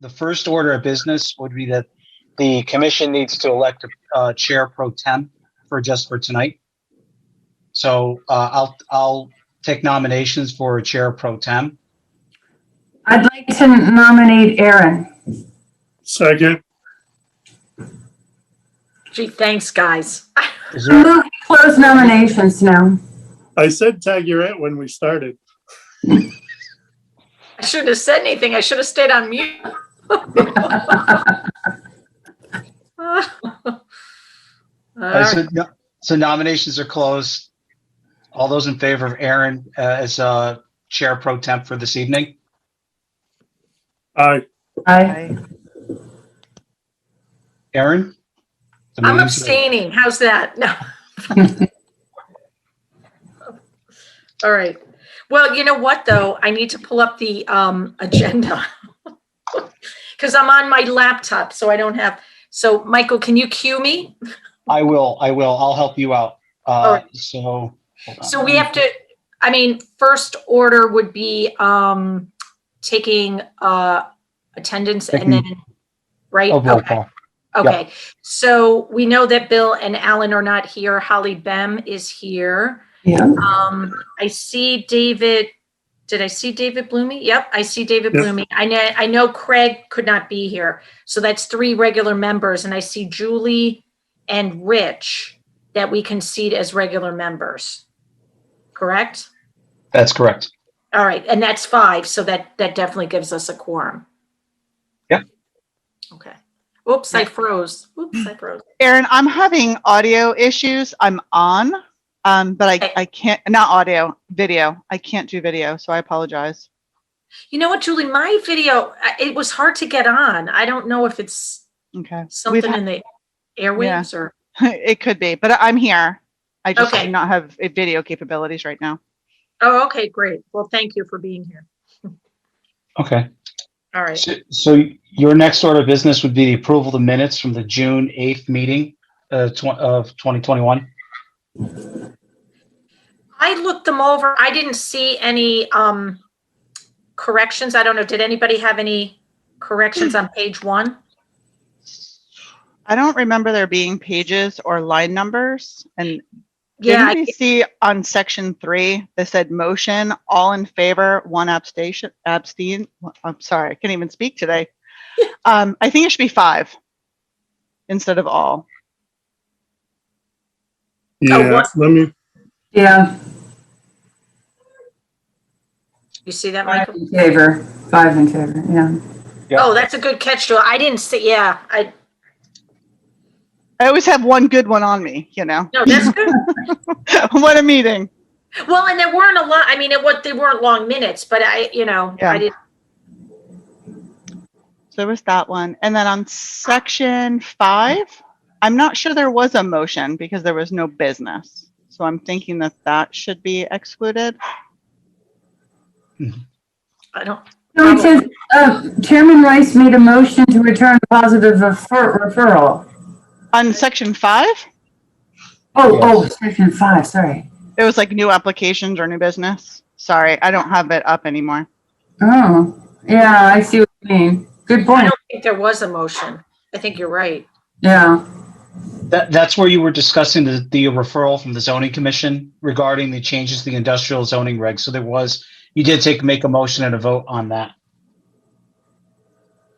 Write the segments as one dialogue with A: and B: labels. A: the first order of business would be that the commission needs to elect a uh, chair pro tem for just for tonight. So uh, I'll, I'll take nominations for a chair pro tem.
B: I'd like to nominate Aaron.
C: Second,
D: Gee, thanks, guys.
A: Is
B: I
A: there,
B: move to close nominations now.
C: I said tag your it when we started.
D: I shouldn't have said anything. I should have stayed on mute. All
A: uh,
D: right.
A: so, no- so nominations are closed. All those in favor of Aaron uh, as uh, chair pro temp for this evening?
C: Aye.
B: Aye.
A: Aaron? The
D: I'm
A: meeting's-
D: abstaining. How's that? No. All right. Well, you know what, though? I need to pull up the um, agenda. Because I'm on my laptop, so I don't have, so Michael, can you cue me?
A: I will, I will. I'll help you out. Uh, so. hold on.
D: So we have to, I mean, first order would be um taking uh attendance and then, right?
A: Oh, roll
D: Okay,
A: call.
D: okay. So we know that Bill and Alan are not here. Holly Bem is here.
B: Yeah.
D: Um, I see David, did I see David Blumey? Yep, I see David
C: Yes.
D: Blumey. I know, I know Craig could not be here. So that's three regular members and I see Julie and Rich that we concede as regular members. Correct?
A: That's correct.
D: All right, and that's five, so that, that definitely gives us a quorum.
A: Yep.
D: Okay. Oops, I froze. Oops, I froze.
E: Aaron, I'm having audio issues. I'm on, um, but I,
D: Okay.
E: I can't, not audio, video. I can't do video, so I apologize.
D: You know what, Julie, my video, I- it was hard to get on. I don't know if it's
E: Okay. We've
D: something in the airwaves or.
E: It could be, but I'm here. I just
D: Okay.
E: do not have uh, video capabilities right now.
D: Oh, okay, great. Well, thank you for being here.
A: Okay.
D: All right.
A: So- So your next order of business would be the approval of the minutes from the June 8th meeting uh, tw- of 2021?
D: I looked them over. I didn't see any um corrections. I don't know. Did anybody have any
E: Hmm.
D: corrections on page one?
E: I don't remember there being pages or line numbers. And
D: Yeah,
E: didn't
D: I-
E: we see on section three, they said motion, all in favor, one abstain, abstain. I'm sorry, I can't even speak today. Um, I think it should be five instead of all.
C: Yeah,
D: what?
C: let me,
B: Yeah,
D: you see that,
B: five
D: Michael?
E: Uh,
B: in favor, five in favor, yeah.
A: Yeah.
D: Oh, that's a good catch, Joel. I didn't see, yeah, I,
E: I always have one good one on me, you know,
D: no, that's good.
E: what a meeting.
D: Well, and there weren't a lot, I mean, it what, they weren't long minutes, but I, you know, I
E: Yeah.
D: didn't,
E: So there was that one. And then on section five, I'm not sure there was a motion because there was no business. So I'm thinking that that should be excluded.
D: I don't,
B: So it says, uh, Chairman Rice made a motion to return a positive refer- referral.
E: On section five,
B: Oh, oh,
A: Yes.
B: section five, sorry.
E: it was like new applications or new business. Sorry, I don't have it up anymore.
B: Oh, yeah, I see what you mean. Good
D: I
B: point,
D: don't think there was a motion. I think you're right.
B: yeah.
A: That, that's where you were discussing the, the referral from the zoning commission regarding the changes to the industrial zoning regs. So there was, you did take, make a motion and a vote on that.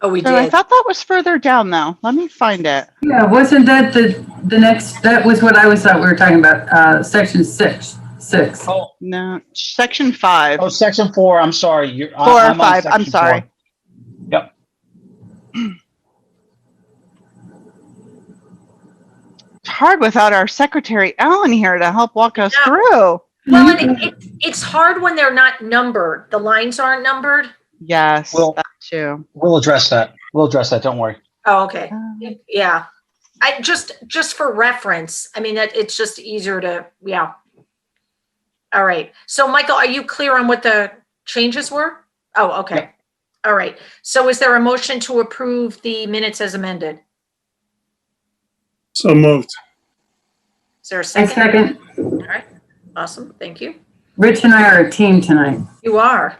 D: Oh, we
E: So I
D: did.
E: thought that was further down though. Let me find it.
B: Yeah, wasn't that the, the next, that was what I was thought we were talking about, uh, section six, six.
A: Oh,
E: No, section five.
A: oh, section four, I'm sorry. You're- I-
E: Four or
A: I'm on
E: five, I'm
A: section
E: sorry.
A: four. Yep.
E: It's hard without our secretary Ellen here to help walk us
D: Yeah.
E: through.
D: Well, and it, it- it's hard when they're not numbered. The lines aren't numbered.
E: Yes,
A: Well-
E: that too.
A: We'll address that. We'll address that. Don't worry.
D: Oh, okay.
E: Um,
D: Yeah. I just, just for reference, I mean, that it's just easier to, yeah. All right. So Michael, are you clear on what the changes were? Oh, okay. All right. So is there a motion to approve the minutes as amended?
C: so moved.
D: Is there a
B: I
D: second?
B: second,
D: All right. Awesome. Thank you.
B: Rich and I are a team tonight.
D: You are.